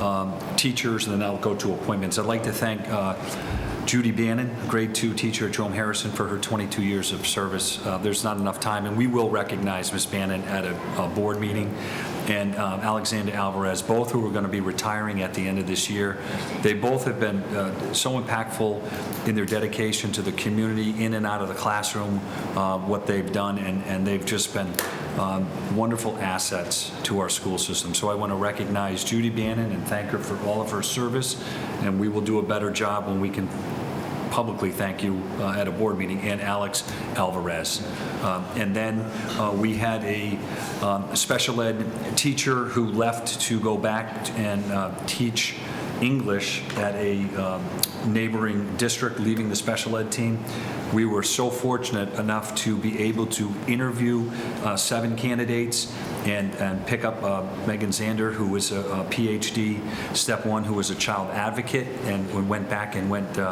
um, teachers, and then I'll go to appointments. I'd like to thank uh, Judy Bannon, grade two teacher at Jerome Harrison, for her 22 years of service. Uh, There's not enough time, and we will recognize Ms. Bannon at a a board meeting, and um, Alexander Alvarez, both who are going to be retiring at the end of this year. They both have been uh, so impactful in their dedication to the community, in and out of the classroom, uh, what they've done, and and they've just been um, wonderful assets to our school system. So I want to recognize Judy Bannon and thank her for all of her service, and we will do a better job when we can publicly thank you uh, at a board meeting, and Alex Alvarez. Um, And then uh, we had a um, special ed teacher who left to go back and uh, teach English at a um, neighboring district, leaving the special ed team. We were so fortunate enough to be able to interview uh, seven candidates and, and pick up uh, Megan Zander, who was a a PhD, step one, who was a child advocate, and we went back and went uh,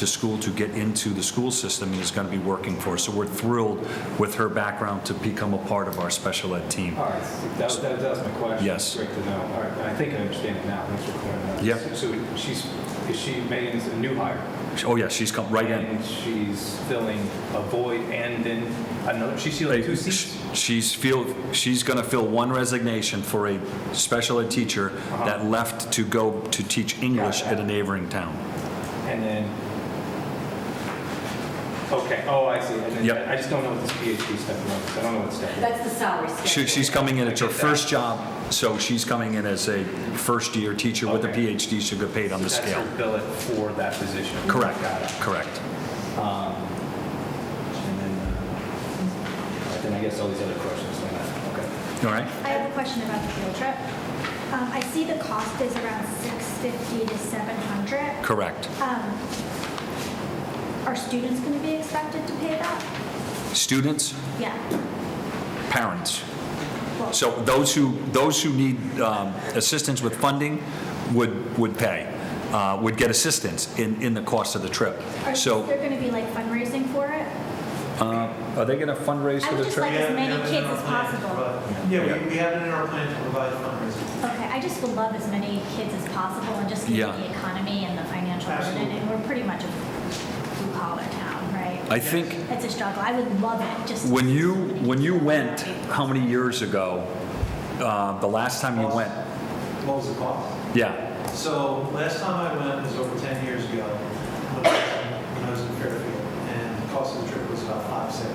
to school to get into the school system and is going to be working for us. So we're thrilled with her background to become a part of our special ed team. All right, so that was, that was- that was my question. Yes. Great to know. All right, I think I understand it now. Thanks for clearing that. up. Yep. So so she's, is she, Megan's a new hire? Oh, yeah, she's come right in. And she's filling a void and then, another, she's filling two seats? She's feel, she's going to fill one resignation for a special ed teacher Uh-huh. that left to go to teach English at a neighboring town. And then, okay, oh, I see. And Yep. then, I just don't know what this PhD step was. I don't know what step it is. That's the salary schedule. She- She's coming in, it's her I get that. first job, so she's coming in as a first-year teacher with a Okay. PhD, she'll get paid on the That's scale. her billet for that position. Correct, Got it. correct. Um, And then, uh, all right, then I guess all these other questions, like that. okay. All right? I have a question about the field trip. Um, I see the cost is around 650 to 700. Correct. Um, Are students going to be expected to pay that? Students, Yeah. parents. Well, So those who, those who need um, assistance with funding would, would pay, uh, would get assistance in, in the cost of the trip. Are So there going to be like fundraising for it? are they going to fundraise I for would the just trip? like as Yeah, we many have it in kids our as plan to possible. provide- Yeah, we, we have it in our plan to provide fundraising. Okay, I just would love as many kids as possible and just Yeah. given the economy and the financial burden. Absolutely. And we're pretty much a blue collar town, right? I think It's a struggle. I would love it, just. when you, when you went, how many years ago, uh, the last time you went? What was the cost? Yeah. So last time I went was over 10 years ago, when I was- when I was in Fairfield, and the cost of the trip was about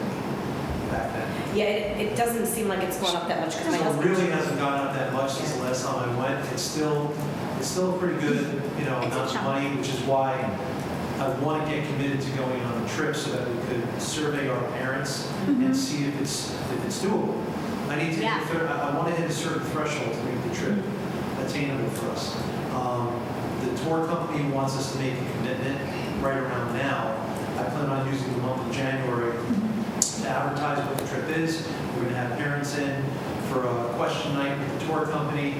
570 back then. Yeah, it, it doesn't seem like it's gone up that much because my So it husband. really hasn't gone up that much since the last time I went. It's still, it's still a pretty good, you know, It's a amount of chunk. money, which is why I want to get committed to going on a trip so that we could survey our parents and see if it's, if it's doable. I need to, Mm-hmm. hit Yeah. a thir- I want to hit a certain threshold to make the trip attainable for us. Um, The tour company wants us to make a commitment right around now. I plan on using the month of January to advertise what the trip is. We're going to have parents in for a question night with the tour company,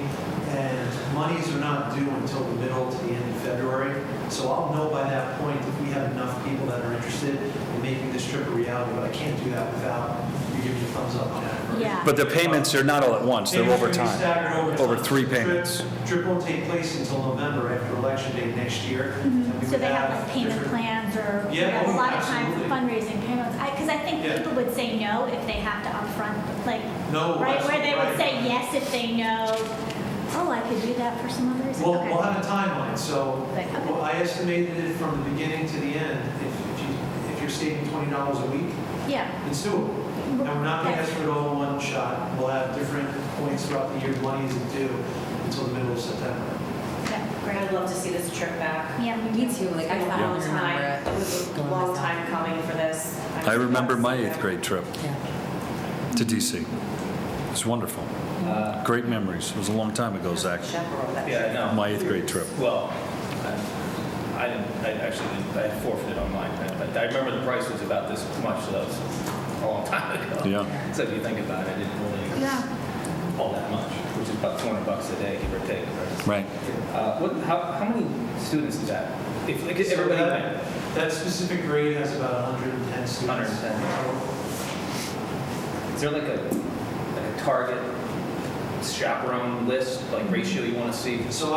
and monies are not due until the middle to the end of February. So I'll know by that point if we have enough people that are interested in making this trip a reality, but I can't do that without you giving me a thumbs up on that. Yeah. But the payments are not all at once, they're Payments over will be time. staggered over Over time. three The trip- payments. Trip won't take place until November after Election Day next year. and we Mm-hmm. So would they have like payment different- plans or we Yeah, have a oh, lot of time for absolutely. fundraising payments? Because I think Yeah. people would say no if they have to upfront, like, No, right, where they would absolutely, right. say yes if they know, oh, I could do that for some other reason. We'll, Okay. we'll have a timeline, so Right, okay. well, I estimated it from the beginning to the end. If if you, if you're saving twenty dollars a week, Yeah, it's doable. And we're not gonna ask for it all in one shot. We'll have different points throughout the year, money isn't due until the middle of September. okay, I'd great. love to see this trip back. Yeah, Me me too. too, like It's been I a long found time. It was a long time coming for this. I remember my eighth Yeah. grade trip Yeah. to DC. It's wonderful. Uh, Great memories. It was a long time ago, Zach. Chaperone that Yeah, trip. no. My eighth grade trip. Well, I- I didn't, I actually didn't, I had forfeited on mine. I I remember the price was about this much, so that was a long time ago. Yeah. So if you think about it, it didn't really Yeah, all that much, which is about 200 bucks a day, give or take. Right. right? Uh, What, how, how many students is that? If, like, everybody So went? that- That specific grade has about hundred and ten students. 110. Is there like a, like a target chaperone list, like ratio you want to see? So